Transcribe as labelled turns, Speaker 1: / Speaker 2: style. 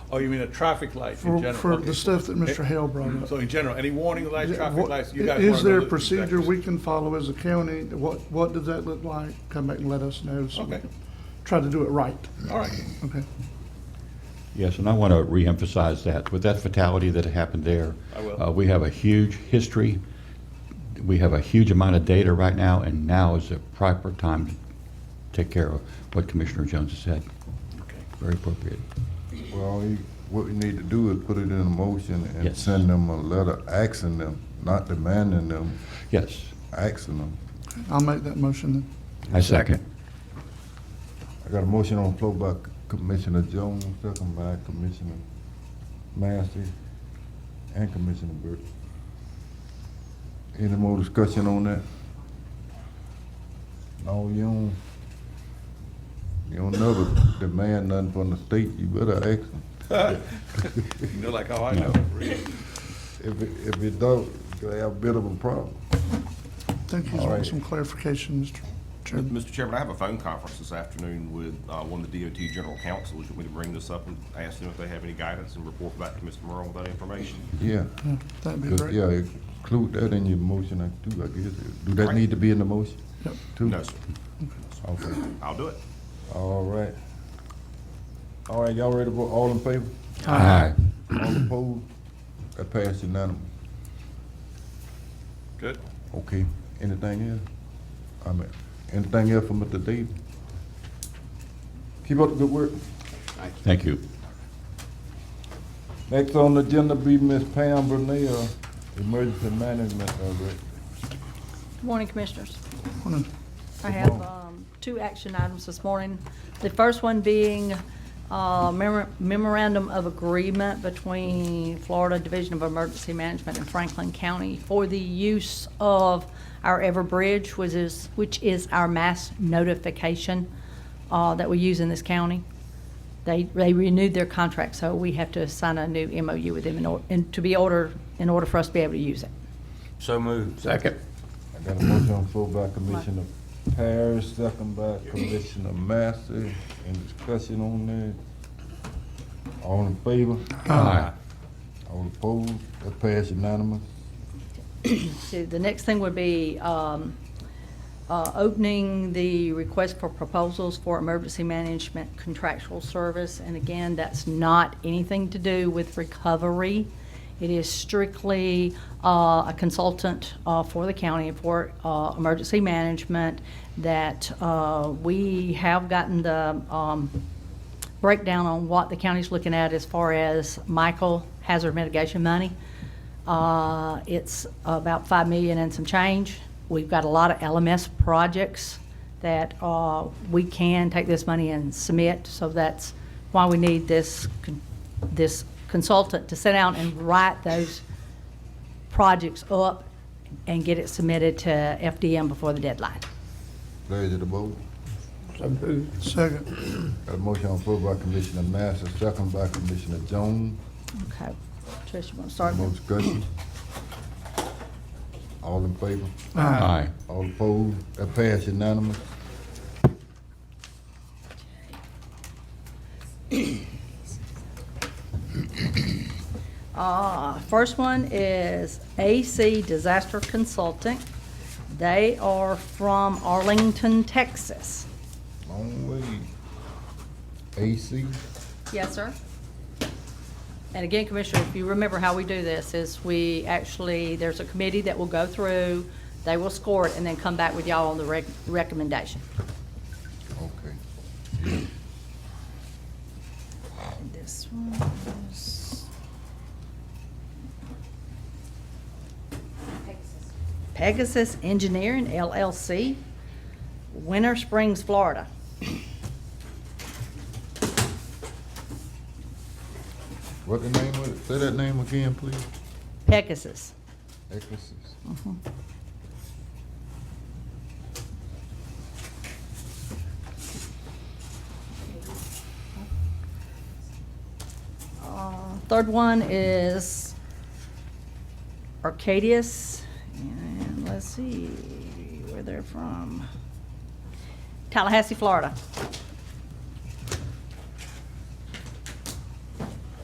Speaker 1: Oh, you mean a traffic light in
Speaker 2: for,
Speaker 1: general?
Speaker 2: for
Speaker 1: okay.
Speaker 2: the stuff that Mr. Hale brought up.
Speaker 1: So in general, any warning lights, traffic lights, you guys wanna know?
Speaker 2: Is there a
Speaker 1: the
Speaker 2: procedure
Speaker 1: exact-
Speaker 2: we can follow as a county? What, what does that look like? Come back and let us know. so we
Speaker 1: Okay.
Speaker 2: can Try to do it right.
Speaker 1: All right.
Speaker 2: Okay.
Speaker 3: Yes, and I want to reemphasize that. With that fatality that happened there,
Speaker 1: I will.
Speaker 3: uh, we have a huge history. We have a huge amount of data right now, and now is the proper time to take care of what Commissioner Jones has said. Very appropriate.
Speaker 4: Well, you- what we need to do is put it in a motion and
Speaker 3: Yes.
Speaker 4: send them a letter asking them, not demanding them,
Speaker 3: Yes,
Speaker 4: asking them.
Speaker 2: I'll make that motion then.
Speaker 3: I second.
Speaker 4: I got a motion on the floor by Commissioner Jones, second by Commissioner Massey and Commissioner Burke. Any more discussion on that? No, you don't, you don't never demand nothing from the state, you better ask them.
Speaker 1: You know, like, oh, I know.
Speaker 4: If, it- if you don't, you'll have a bit of a problem.
Speaker 2: Thank you
Speaker 4: All
Speaker 2: for
Speaker 4: right.
Speaker 2: some clarification, Mr. Chairman.
Speaker 5: Mr. Chairman, I have a phone conference this afternoon with uh, one of the DOT general counsels. You want me to bring this up and ask them if they have any guidance and report back to Mr. Merle with that information?
Speaker 4: Yeah,
Speaker 2: Yeah, That'd be
Speaker 4: Just,
Speaker 2: great.
Speaker 4: yeah, include that in your motion, I do, I guess. Do that
Speaker 5: Right.
Speaker 4: need to be in the motion?
Speaker 2: Yep.
Speaker 4: too?
Speaker 5: No, sir.
Speaker 4: Okay,
Speaker 5: I'll do it.
Speaker 4: all right. All right, y'all ready to vote, all in favor?
Speaker 3: Aye.
Speaker 4: All opposed? That passed unanimous.
Speaker 1: Good.
Speaker 4: Okay, anything else? I mean, anything else for Mr. Davis? Keep up the good work.
Speaker 3: Thank you.
Speaker 4: Next on the agenda be Ms. Pam Brunel, Emergency Management Director.
Speaker 6: Good morning, Commissioners.
Speaker 2: Wanna-
Speaker 6: I have um, two action items this morning. The first one being uh, memor- memorandum of agreement between Florida Division of Emergency Management and Franklin County for the use of our Everbridge, which is, which is our mass notification uh, that we use in this county. They, they renewed their contract, so we have to sign a new MOU with them in order, and to be order, in order for us to be able to use it.
Speaker 7: So moved.
Speaker 3: Second.
Speaker 4: I got a motion on the floor by Commissioner Parrish, second by Commissioner Massey. Any discussion on that? All in favor?
Speaker 3: Aye.
Speaker 4: All opposed? That passed unanimous.
Speaker 6: So the next thing would be um, uh, opening the request for proposals for emergency management contractual service. And again, that's not anything to do with recovery. It is strictly uh, a consultant uh, for the county and for uh, emergency management that uh, we have gotten the um, breakdown on what the county's looking at as far as Michael hazard mitigation money. Uh, It's about 5 million and some change. We've got a lot of LMS projects that uh, we can take this money and submit, so that's why we need this, con- this consultant to sit down and write those projects up and get it submitted to FDM before the deadline.
Speaker 4: Pleasure to vote.
Speaker 2: Second,
Speaker 4: Got a motion on the floor by Commissioner Massey, second by Commissioner Jones.
Speaker 6: Okay. Trish, you want to start?
Speaker 4: No discussion. All in favor?
Speaker 3: Aye.
Speaker 4: All opposed? That passed unanimous.
Speaker 6: Uh, First one is AC Disaster Consulting. They are from Arlington, Texas.
Speaker 4: Long way. AC,
Speaker 6: Yes, sir. And again, Commissioner, if you remember how we do this, is we actually, there's a committee that will go through, they will score it, and then come back with y'all on the rec- recommendation.
Speaker 4: okay.
Speaker 6: This one is. Pegasus Engineering LLC, Winter Springs, Florida.
Speaker 4: What the name of it? Say that name again, please.
Speaker 6: Pegasus.
Speaker 4: É Exorcist.
Speaker 6: Uh, Third one is Arcadius, and let's see where they're from. Tallahassee, Florida.